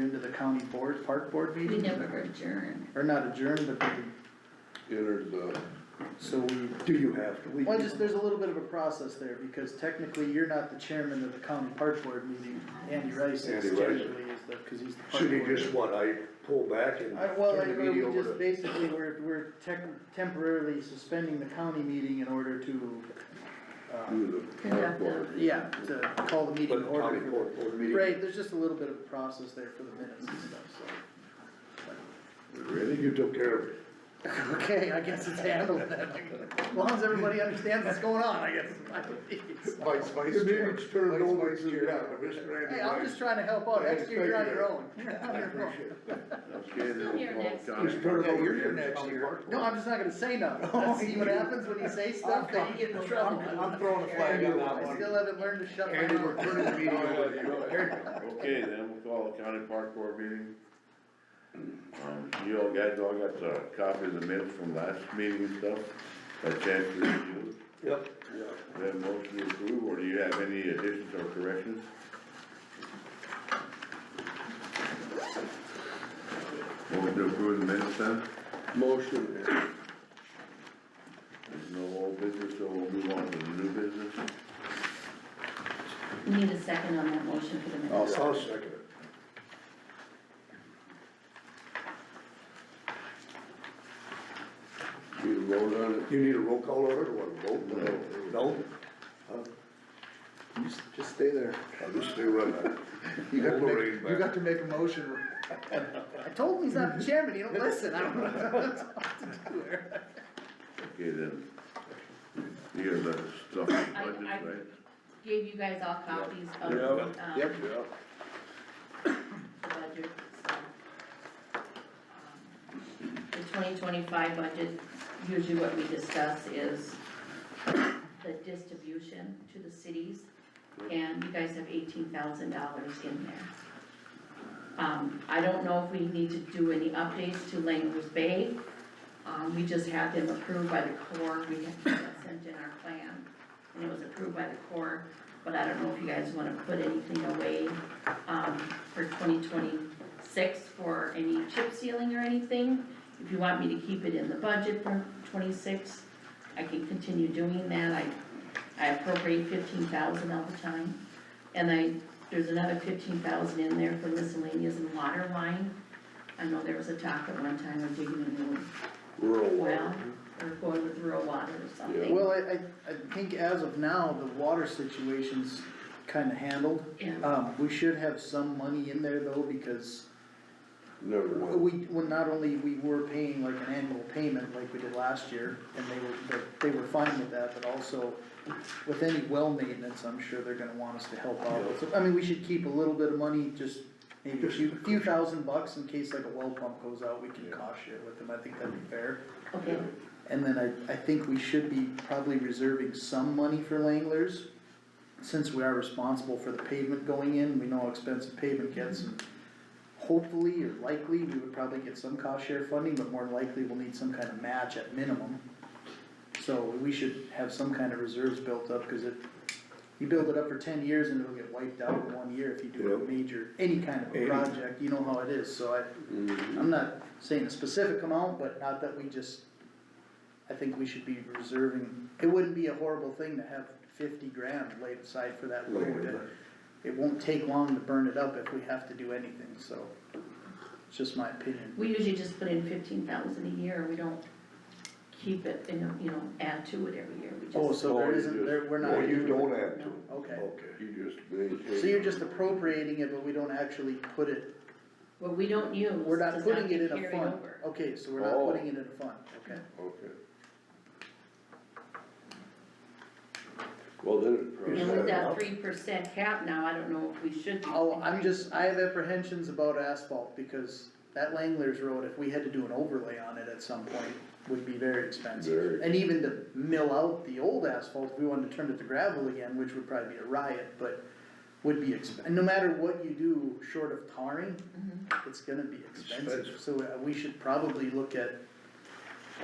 into the county board, park board We meeting? never adjourn. Or not adjourned, but they entered the, So we, do you have to? We Well, do. just, there's a little bit of a process there, because technically, you're not the chairman of the county park board meeting. Andy Rice is Andy Rice. generally is the, cause he's the park should he board. just want, I pull back and I, well, I, turn the meeting we over just to. basically, we're, we're tec- temporarily suspending the county meeting in order to, um, do the Conduct park board. yeah, to call the meeting in But county order. for- board, board meeting. Right, there's just a little bit of a process there for the minutes and stuff, Really, you took care of it. so. Okay, I guess it's handled then, as long as everybody understands what's going on, I guess. Vice, vice The chair. meeting's turned Vice, over vice to, chair. yeah, Commissioner Andy Hey, I'm Rice. just trying to help out, Yeah, next year you're on your own, thank you're on I your own. appreciate it. Okay, Still here well, next got year. it. Just turn it Yeah, over you're to here him. next year. No, I'm just not gonna say nothing, Let's see what happens when Oh, you say stuff, then you get in trouble. I'm throwing a flag on that I one. still haven't learned to shut my Andy, we're mouth. turning the meeting over to you. Okay, then we'll call the county park board meeting. Um, you all guys all got the copy of the minutes from last meeting and stuff, by chance to review? Yep. Do you have a motion to approve, or do you have any additions or corrections? Motion to approve the minutes then? Motion. There's no old business, so we'll move on to the new business. We Need a second on that motion for the I'll minutes. I'll second it. Need a vote on it? You need a roll call order or what, a vote? No. No? Just stay there. I'll just stay right there. You got to Wolverine make, back. you got to make a motion. I told him he's not the chairman, he don't listen, I don't know what to do here. Okay, then. You got that stuff in I- budget, I- right? Gave you guys all copies of, Yeah. um, Yep. the Yeah. budget, so. um, The twenty twenty-five budget, usually what we discuss is the distribution to the cities, and you guys have eighteen thousand dollars in there. Um, I don't know if we need to do any updates to Langers Bay. Um, we just had them approved by the Corps, we had we had sent in our plan, and it was approved by the Corps, but I don't know if you guys wanna put anything away, um, for twenty twenty-six for any chip sealing or anything. If you want me to keep it in the budget for twenty-six, I can continue doing that, I, I appropriate fifteen thousand all the time. And I, there's another fifteen thousand in there for miscellaneous and water line. I know there was a talk at one time of digging a new Rural well, water. or going with rural water or something. Well, I, I, I think as of now, the water situation's kinda handled. Yeah, Um, we should have some money in there though, because Never mind. we, well, not only we were paying like an annual payment like we did last year, and they were, they were fine with that, but also with any well maintenance, I'm sure they're gonna want us to help out. So, I mean, we should keep a little bit of money, just maybe a few, few thousand bucks in case like a well pump goes out, we can cost share with them, I think that'd be fair. okay, And then I, I think we should be probably reserving some money for Langlers, since we are responsible for the pavement going in, we know how expensive pavement gets. and Mm-hmm. Hopefully or likely, we would probably get some cost share funding, but more likely we'll need some kind of match at minimum. So we should have some kind of reserves built up, cause it, you build it up for ten years and it'll get wiped out in one year if you do a Yep. major, any kind of a Any- project, you know how it is, so I. I'm not saying a specific amount, but not that we just, I think we should be reserving, it wouldn't be a horrible thing to have fifty grand laid aside for that road. It- It won't take long to burn it up if we have to do anything, so, it's just my opinion. we usually just put in fifteen thousand a year, we don't keep it and, you know, add to it every year, we just. Oh, so there you isn't, just- there, we're not. Oh, you don't oh, have to. Okay, Okay. You just maintain. so you're just appropriating it, but we don't actually put it, What we don't use we're not does putting it get in a carried fund. over. Okay, so we're not Oh. putting it in a fund, okay. Okay. Well, then. uh, And with that three percent cap now, I don't know if we should. do Oh, that. I'm just, I have apprehensions about asphalt, because that Langlers Road, if we had to do an overlay on it at some point, would be very expensive. Very. And even to mill out the old asphalt, if we wanted to turn it to gravel again, which would probably be a riot, but would be exp, and no matter what you do, short of tarring, it's gonna be expensive, Expensive. so uh, we should probably look at,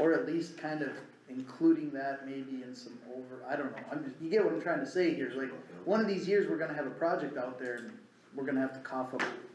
or at least kind of including that maybe in some over, I don't know, I'm, just- you get what I'm trying to say here, like, one of these years, we're gonna have a project out there, and we're gonna have to cough up